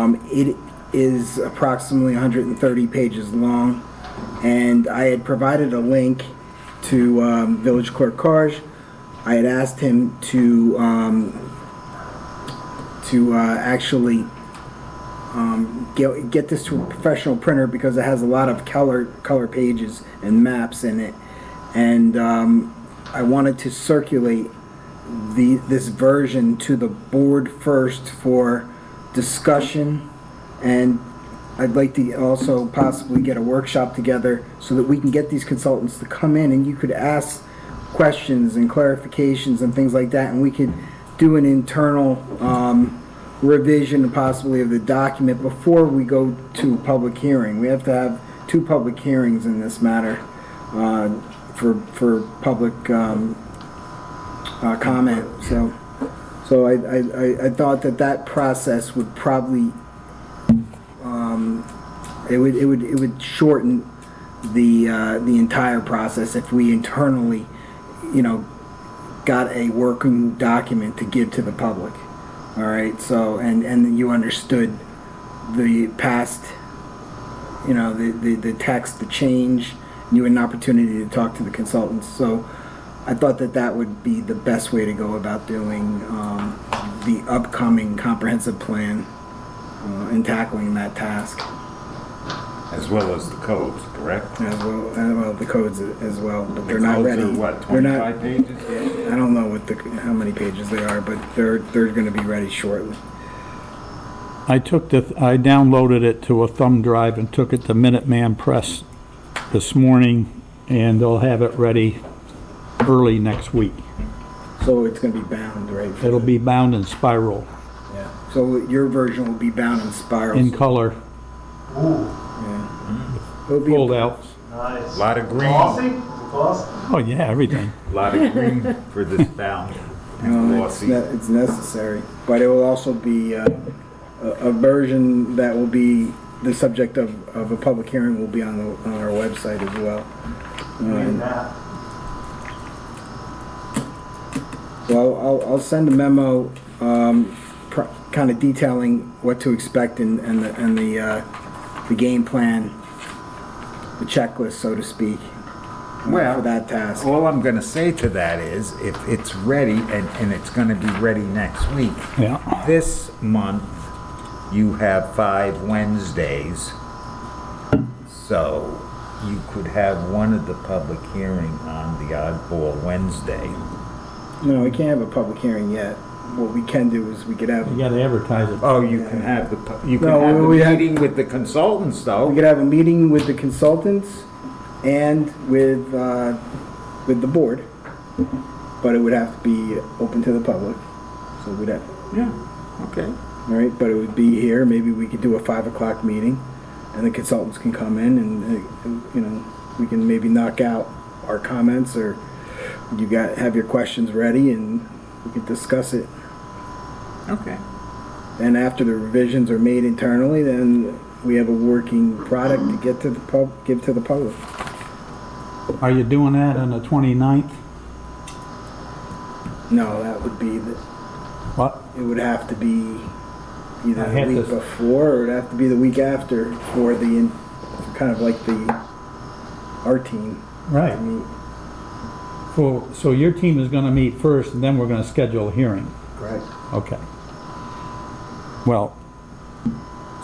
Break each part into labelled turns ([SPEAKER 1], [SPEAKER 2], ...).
[SPEAKER 1] Um, It is approximately 130 pages long, and I had provided a link to um, Village Clerk Karj. I had asked him to, um, to uh, actually um, get get this to a professional printer because it has a lot of color, color pages and maps in it. And um, I wanted to circulate the, this version to the board first for discussion, and I'd like to also possibly get a workshop together so that we can get these consultants to come in and you could ask questions and clarifications and things like that, and we could do an internal um, revision possibly of the document before we go to public hearing. We have to have two public hearings in this matter uh, for, for public um, uh, comment, so, so I, I, I- I thought that that process would probably, um, it would, it would, it would shorten the, uh, the entire process if we internally, you know, got a working document to give to the public. All right, so, and, and you understood the past, you know, the, the, the text, the change, you had an opportunity to talk to the consultants, so I thought that that would be the best way to go about doing, um, the upcoming comprehensive plan, uh, and tackling that task,
[SPEAKER 2] As well as the codes, correct?
[SPEAKER 1] as well, as well, the codes as well, but they're
[SPEAKER 2] The
[SPEAKER 1] not
[SPEAKER 2] codes
[SPEAKER 1] ready.
[SPEAKER 2] are what,
[SPEAKER 1] They're not-
[SPEAKER 2] 25 pages?
[SPEAKER 1] I don't know what the, how many pages they are, but they're, they're gonna be ready shortly.
[SPEAKER 3] I took the, I downloaded it to a thumb drive and took it to Minuteman Press this morning, and they'll have it ready early next week.
[SPEAKER 1] So it's gonna be bound, right?
[SPEAKER 3] It'll be bound in spiral,
[SPEAKER 1] Yeah. So your version will be bound in spirals.
[SPEAKER 3] in color,
[SPEAKER 4] Ooh,
[SPEAKER 1] yeah. It'll be
[SPEAKER 3] pulled out.
[SPEAKER 4] nice.
[SPEAKER 2] Lot of green,
[SPEAKER 4] Glossy?
[SPEAKER 2] lot
[SPEAKER 4] Is it glossy?
[SPEAKER 3] Oh, yeah, everything.
[SPEAKER 2] of green for this bound and
[SPEAKER 1] No, it's,
[SPEAKER 2] glossy.
[SPEAKER 1] ne- it's necessary, but it will also be uh, a, a version that will be the subject of, of a public hearing. Will be on the on our website as well.
[SPEAKER 4] Look at that.
[SPEAKER 1] Well, I'll, I'll send a memo, um, pr- kind of detailing what to expect and, and the, and the, uh, the game plan, the checklist, so to speak, uh, for
[SPEAKER 2] Well- oh.
[SPEAKER 1] that task.
[SPEAKER 2] All I'm gonna say to that is, if it's ready, and, and it's gonna be ready next week,
[SPEAKER 3] Yeah,
[SPEAKER 2] this month, you have five Wednesdays. So you could have one of the public hearing on the oddball Wednesday.
[SPEAKER 1] No, we can't have a public hearing yet. What we can do is we could have,
[SPEAKER 3] you gotta advertise it.
[SPEAKER 2] Oh, you can have the, pu- you can
[SPEAKER 1] No,
[SPEAKER 2] have the
[SPEAKER 1] we had-
[SPEAKER 2] meeting with the consultants,
[SPEAKER 1] we
[SPEAKER 2] though.
[SPEAKER 1] could have a meeting with the consultants and with, uh, with the board, but it would have to be open to the public, so we'd have,
[SPEAKER 2] Yeah, okay.
[SPEAKER 1] All right, but it would be here, maybe we could do a five o'clock meeting, and the consultants can come in and, uh, you know, we can maybe knock out our comments, or you got, have your questions ready, and we can discuss it.
[SPEAKER 2] Okay.
[SPEAKER 1] And after the revisions are made internally, then we have a working product to get to the pub, give to the public.
[SPEAKER 3] Are you doing that on the 29th?
[SPEAKER 1] No, that would be, the-
[SPEAKER 3] What?
[SPEAKER 1] it would have to be either
[SPEAKER 3] I
[SPEAKER 1] the
[SPEAKER 3] have
[SPEAKER 1] week
[SPEAKER 3] to-
[SPEAKER 1] before, or it'd have to be the week after, for the, in- kind of like the, our team.
[SPEAKER 3] Right.
[SPEAKER 1] I mean,
[SPEAKER 3] So, so your team is gonna meet first, and then we're gonna schedule a hearing?
[SPEAKER 1] Right.
[SPEAKER 3] Okay. Well,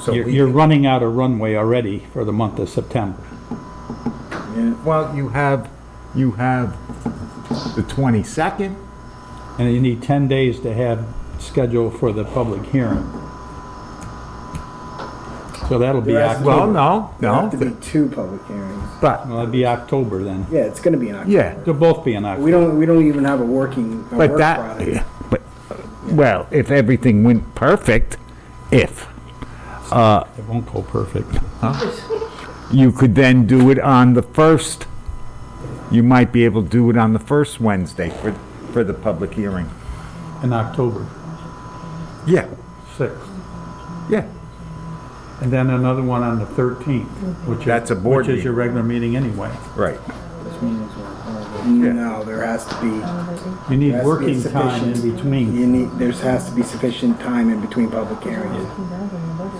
[SPEAKER 2] So
[SPEAKER 3] you're,
[SPEAKER 2] we
[SPEAKER 3] you're
[SPEAKER 2] can-
[SPEAKER 3] running out of runway already for the month of September.
[SPEAKER 1] Yeah,
[SPEAKER 2] Well, you have, you have the 22nd.
[SPEAKER 3] And you need 10 days to have scheduled for the public hearing. So that'll be
[SPEAKER 1] There has to be-
[SPEAKER 2] Well,
[SPEAKER 3] October.
[SPEAKER 2] no,
[SPEAKER 1] there have to be
[SPEAKER 2] no,
[SPEAKER 1] two public hearings.
[SPEAKER 2] but,
[SPEAKER 3] Well, it'll be October then.
[SPEAKER 1] Yeah, it's gonna be in October.
[SPEAKER 2] yeah,
[SPEAKER 3] They'll both be in
[SPEAKER 1] We
[SPEAKER 3] October.
[SPEAKER 1] don't, we don't even have a working, a
[SPEAKER 2] but
[SPEAKER 1] work product.
[SPEAKER 2] that, but, well, if everything went perfect, if,
[SPEAKER 3] It won't go perfect.
[SPEAKER 2] you could then do it on the first, you might be able to do it on the first Wednesday for, for the public hearing.
[SPEAKER 3] In October
[SPEAKER 2] Yeah,
[SPEAKER 3] 6th.
[SPEAKER 2] yeah.
[SPEAKER 3] And then another one on the 13th, which is.
[SPEAKER 2] That's a board
[SPEAKER 3] Which is your regular meeting anyway.
[SPEAKER 2] Right.
[SPEAKER 1] No, there has to be,
[SPEAKER 3] You need
[SPEAKER 1] There has to be
[SPEAKER 3] working time in
[SPEAKER 1] sufficient-
[SPEAKER 3] between.
[SPEAKER 1] you need, there has to be sufficient time in between public hearings.